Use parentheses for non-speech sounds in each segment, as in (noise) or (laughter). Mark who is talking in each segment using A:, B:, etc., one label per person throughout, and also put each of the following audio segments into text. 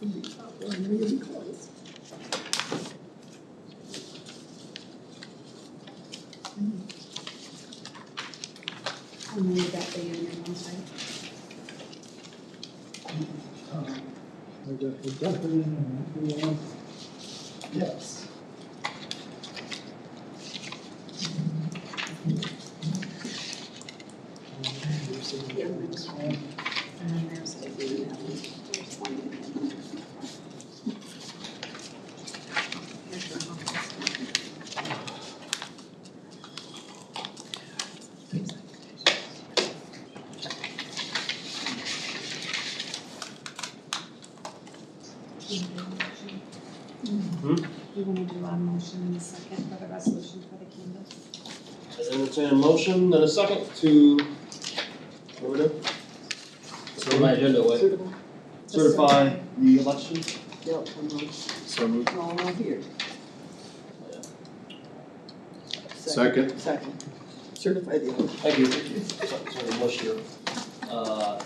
A: Well, I'm gonna be close.
B: I'll move that thing in there, I'm sorry.
A: Um, I got the deputy and the one. Yes. Um, you see the next one?
B: And then there's the, that one, there's one in there. Here's your office. You wanna do a motion in a second for the resolution for the canvas?
C: I entertain a motion and a second to, what we do? It's on my agenda, wait. Certify the election.
D: Yep, I'm on,
E: So moved.
D: I'm all on here.
C: Yeah.
E: Second.
D: Second. Certify the election.
C: Thank you. So- Sorry, motion here. Uh,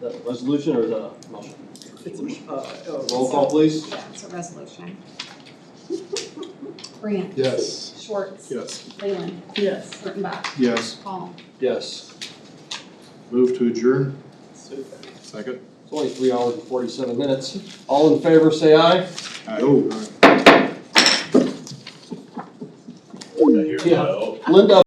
C: the resolution or the motion?
D: It's a, uh, oh,
C: Roll call, please.
B: Yeah, it's a resolution. (laughs) Grant.
E: Yes.
B: Schwartz.
E: Yes.
B: Leyland.
D: yes.
B: Kurttenbach.
E: Yes.
B: Paul.
C: Yes.
E: Move to adjourn.
D: Certify.
E: Second.
C: It's only three hours and forty-seven minutes. All in favor, say aye.
E: Oh.
C: Yeah. Linda,